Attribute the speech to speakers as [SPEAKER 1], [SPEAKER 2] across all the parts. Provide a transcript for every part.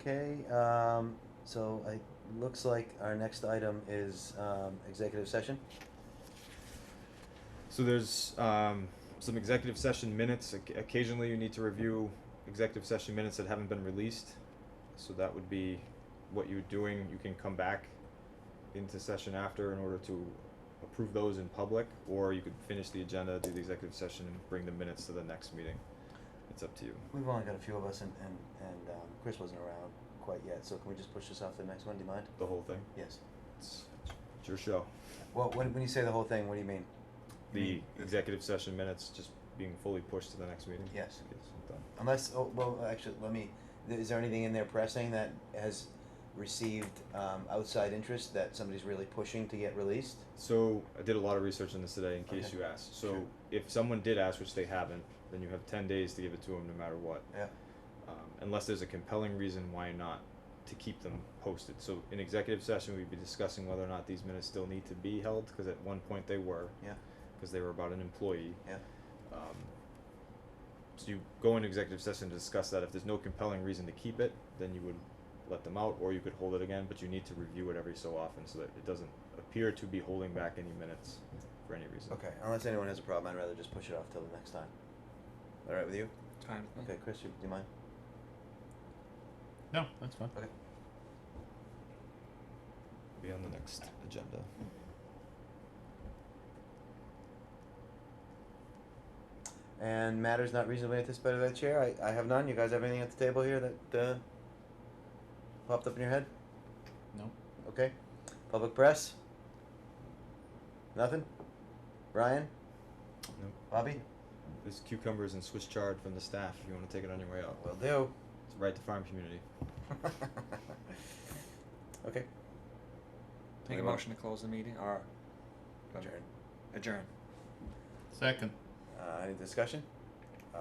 [SPEAKER 1] Okay, um, so it looks like our next item is, um, executive session.
[SPEAKER 2] So there's um, some executive session minutes. Oc- Occasionally, you need to review executive session minutes that haven't been released. So that would be what you're doing. You can come back into session after in order to approve those in public, or you could finish the agenda, do the executive session, and bring the minutes to the next meeting. It's up to you.
[SPEAKER 1] We've only got a few of us and, and, and, um, Chris wasn't around quite yet, so can we just push this off to the next one, do you mind?
[SPEAKER 2] The whole thing.
[SPEAKER 1] Yes.
[SPEAKER 2] It's, it's your show.
[SPEAKER 1] Well, when, when you say the whole thing, what do you mean?
[SPEAKER 2] The executive session minutes just being fully pushed to the next meeting.
[SPEAKER 1] Yes.
[SPEAKER 2] Yes, done.
[SPEAKER 1] Unless, oh, well, actually, let me, th- is there anything in there pressing that has received, um, outside interest that somebody's really pushing to get released?
[SPEAKER 2] So I did a lot of research on this today in case
[SPEAKER 1] Okay.
[SPEAKER 2] you asked. So
[SPEAKER 1] Sure.
[SPEAKER 2] if someone did ask, which they haven't, then you have ten days to give it to them no matter what,
[SPEAKER 1] Yeah,
[SPEAKER 2] um, unless there's a compelling reason why not to keep them posted. So in executive session, we'd be discussing whether or not these minutes still need to be held because at one point they were,
[SPEAKER 1] yeah,
[SPEAKER 2] because they were about an employee.
[SPEAKER 1] yeah,
[SPEAKER 2] Um, so you go into executive session to discuss that. If there's no compelling reason to keep it, then you would let them out, or you could hold it again. But you need to review it every so often so that it doesn't appear to be holding back any minutes for any reason.
[SPEAKER 1] okay, unless anyone has a problem, I'd rather just push it off till the next time. Alright with you?
[SPEAKER 3] Time.
[SPEAKER 1] Okay, Chris, you, do you mind?
[SPEAKER 4] No, that's fine.
[SPEAKER 1] Okay.
[SPEAKER 2] Be on the next agenda.
[SPEAKER 1] And matters not reasonably anticipated by the chair, I, I have none, you guys have anything at the table here that, uh, popped up in your head?
[SPEAKER 4] No.
[SPEAKER 1] Okay, public press? Nothing? Brian?
[SPEAKER 2] Nope.
[SPEAKER 1] Bobby?
[SPEAKER 2] There's cucumbers and Swiss chard from the staff. If you want to take it on your way
[SPEAKER 3] Oh,
[SPEAKER 2] out,
[SPEAKER 1] Will do.
[SPEAKER 2] it's right to farm community.
[SPEAKER 1] okay.
[SPEAKER 3] Make a
[SPEAKER 1] Anyone?
[SPEAKER 3] motion to close the meeting or
[SPEAKER 1] Adjourn.
[SPEAKER 3] Adjourn.
[SPEAKER 4] Second.
[SPEAKER 1] Uh, any discussion? Uh,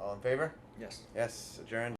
[SPEAKER 1] all in favor?
[SPEAKER 3] Yes.
[SPEAKER 1] Yes, adjourned.